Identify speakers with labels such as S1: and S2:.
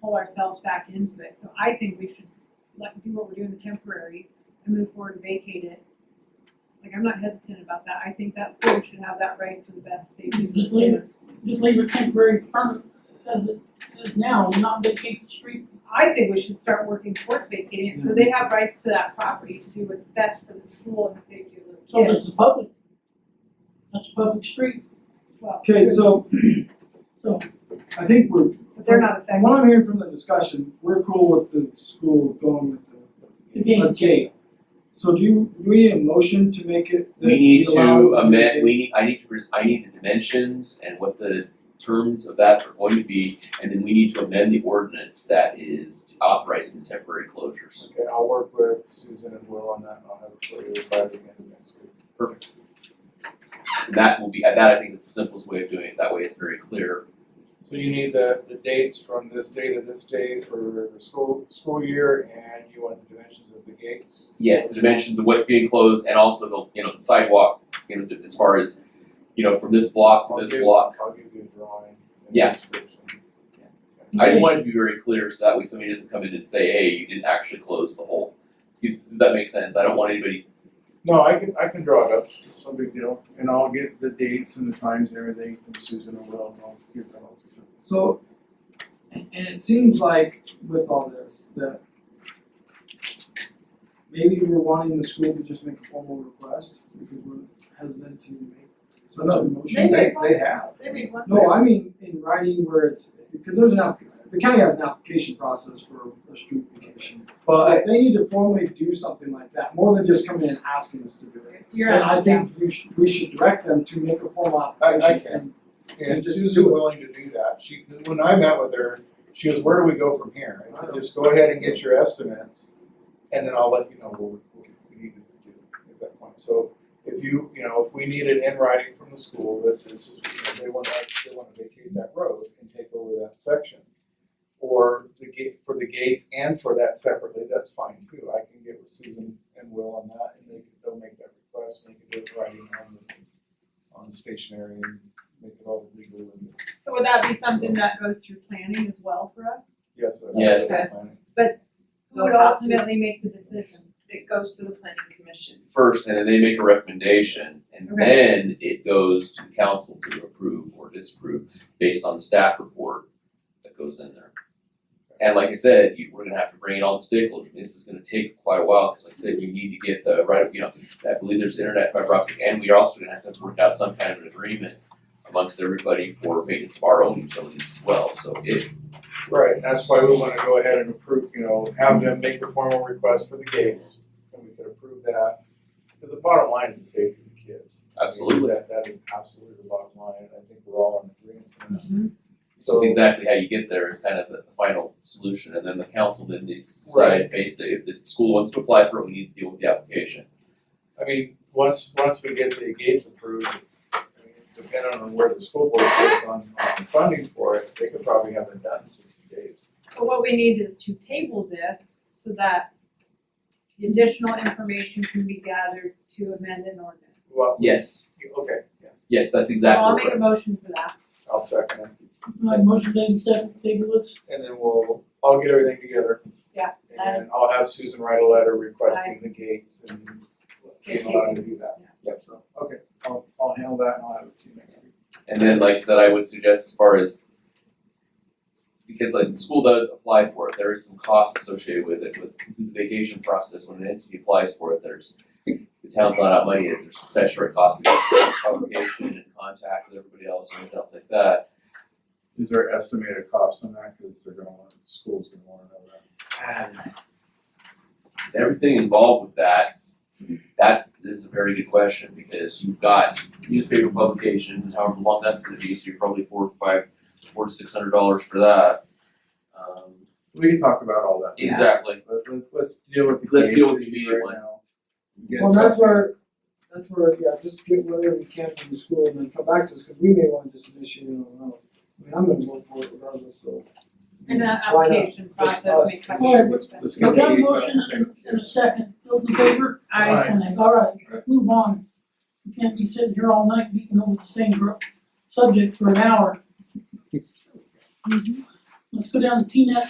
S1: pull ourselves back into it. So I think we should let, do what we're doing the temporary and move forward and vacate it. Like, I'm not hesitant about that. I think that school should have that right to the best safety. of
S2: Just leave it.
S1: students.
S2: Just leave it temporary permit as it is now, not vacate the street.
S1: I think we should start working toward vacating it, so they have rights to that property to do what's best for the school and the safety of those
S2: So
S1: kids.
S2: this is public. That's a public street,
S1: Well,
S3: Okay, so
S2: so
S3: I think we're,
S1: But they're not
S3: from
S1: affected.
S3: what I'm hearing from the discussion, we're cool with the school going with the.
S2: The gate.
S3: a gate. So do you, do we need a motion to make it? that
S4: We need
S3: allow
S4: to
S3: it
S4: amend, we need, I need to, pres- I need the dimensions and what the terms of that are going to be, and then we need to amend the ordinance that is authorizing the temporary closures.
S5: Okay, I'll work with Susan and Will on that, and I'll have it for you by the end of next week.
S4: Perfect. And that will be, that I think is the simplest way of doing it, that way it's very clear.
S5: So you need the, the dates from this day to this day for the school, school year, and you want the dimensions of the gates?
S4: Yes, the dimensions of what's being closed and also the, you know, the sidewalk, you know, as far as, you know, from this block
S5: I'll
S4: to this
S5: give-
S4: block.
S5: I'll give you a drawing and
S4: Yeah.
S5: a description.
S4: I just wanted to be very clear so that way somebody doesn't come in and say, hey, you didn't actually close the whole. You- Does that make sense? I don't want anybody
S5: No, I can, I can draw it up, it's no big deal, and I'll get the dates and the times and everything from Susan and Will, and I'll give them all to you.
S3: So, and and it seems like with all this, that maybe we're wanting the school to just make a formal request, because we're hesitant to make such a
S1: Maybe.
S3: motion.
S5: They, they have.
S1: They read one.
S3: No, I mean, in writing where it's, because there's an app, the county has an application process for a street vacation.
S5: Well, I-
S3: But they need to formally do something like that, more than just coming in and asking us to do it.
S1: So you're
S3: And I
S1: asking,
S3: think you should, we should direct them to make a formal
S5: I- I
S3: application
S5: can.
S3: and
S5: And
S3: Just
S5: Susan
S3: do it.
S5: willing to do that, she, when I met with her, she was, where do we go from here? I said, just go ahead and get your estimates, and then I'll let you know what we, what we need to do at that point. So if you, you know, if we need it in writing from the school, that this is, you know, they wanna, they wanna vacate that road and take over that section. Or the gate, for the gates and for that separately, that's fine too, I can get with Susan and Will on that, and they, they'll make that request, and they can do it in writing on the, on stationery and make it all legal and
S1: so would that be something that goes through planning as well for us?
S5: yes, I-
S4: Yes.
S1: Yes. But who would ultimately make the decision?
S6: It goes to the planning commission.
S4: first, and then they make a recommendation, and
S1: Okay.
S4: then it goes to council to approve or disapprove based on the staff report that goes in there. And like I said, you, we're gonna have to bring in all the stakeholders, this is gonna take quite a while, because like I said, you need to get the right, you know, I believe there's internet fiber optic, and we are also gonna have to work out some kind of an agreement amongst everybody for maintenance of our own utilities as well, so it,
S5: Right, that's why we wanna go ahead and approve, you know, have them make the formal request for the gates, and we could approve that. Cause the bottom line is the safety of the kids. I mean,
S4: absolutely,
S5: That, that is absolutely the bottom line, and I think we're all in agreement on that.
S4: it's
S5: So-
S4: just exactly how you get there is kind of the final solution, and then the council then needs to decide based, on- if the school wants to apply for it, we need to deal with the application.
S5: I mean, once, once we get the gates approved, I mean, depending on where the school board sits on, on funding for it, they could probably have it done in sixty days.
S1: So what we need is to table this so that the additional information can be gathered to amend an ordinance.
S5: Well,
S4: Yes,
S5: okay, yeah,
S4: yes, that's
S1: So I'll make
S4: exactly
S1: a
S4: right.
S1: motion for that.
S5: I'll second it,
S2: my motion being second, table it.
S5: and then we'll, I'll get everything together.
S1: Yeah,
S5: And then I'll have Susan write a letter requesting the gates and being allowed to do that.
S1: Yeah.
S5: Yep, so, okay, I'll, I'll handle that and I'll have it to you next week.
S4: And then, like I said, I would suggest as far as because like the school does apply for it, there is some cost associated with it, with the vacation process, when an entity applies for it, there's the town's not out money, there's statutory costs, there's publication and contact with everybody else and everything else like that.
S5: Is there estimated cost on that, cause they're gonna want, the school's gonna wanna know that.
S4: And Everything involved with that, that is a very good question, because you've got newspaper publication, however long that's gonna be, so you're probably four or five, four to six hundred dollars for that. Um,
S5: We can talk about all that.
S1: Yeah.
S4: Exactly,
S5: Let, let, let's deal with the
S4: Let's deal
S5: gates
S4: with the
S5: issue
S4: immediate
S5: right
S4: one.
S5: now.
S3: Well, that's where, that's where, yeah, just get whatever we can from the school and then come back to us, cause we may want to just initiate it on our own. I mean, I'm gonna vote for it regardless, so.
S1: And that
S3: Why not?
S1: application
S3: Just
S1: process may
S3: us.
S1: come.
S2: Alright, let's-
S1: sure.
S5: Let's
S2: We
S5: get the
S2: got a
S5: gates
S2: motion
S5: up.
S2: and and a second, those in favor?
S1: I,
S5: Aye.
S2: All right, let's move on. We can't be sitting here all night beating over the same gr- subject for an hour. Let's go down to T net